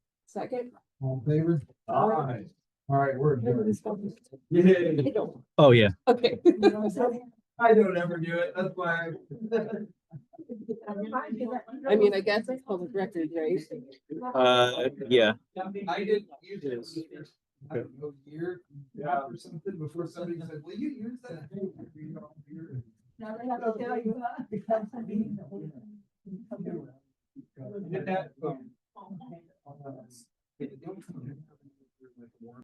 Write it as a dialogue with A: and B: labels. A: Second.
B: All in favor?
A: Aye.
B: All right, we're adjourned.
A: I
B: Yay.
A: don't-
C: Oh, yeah.
A: Okay.
B: I don't ever do it, that's why. I-
A: I mean, I guess it's public record, right?
C: Uh, yeah.
B: I didn't use it. I don't know, year, yeah, or something, before somebody said, will you use that? thing for your own beer?"
D: Now they have to tell you, huh?
B: Did that, um,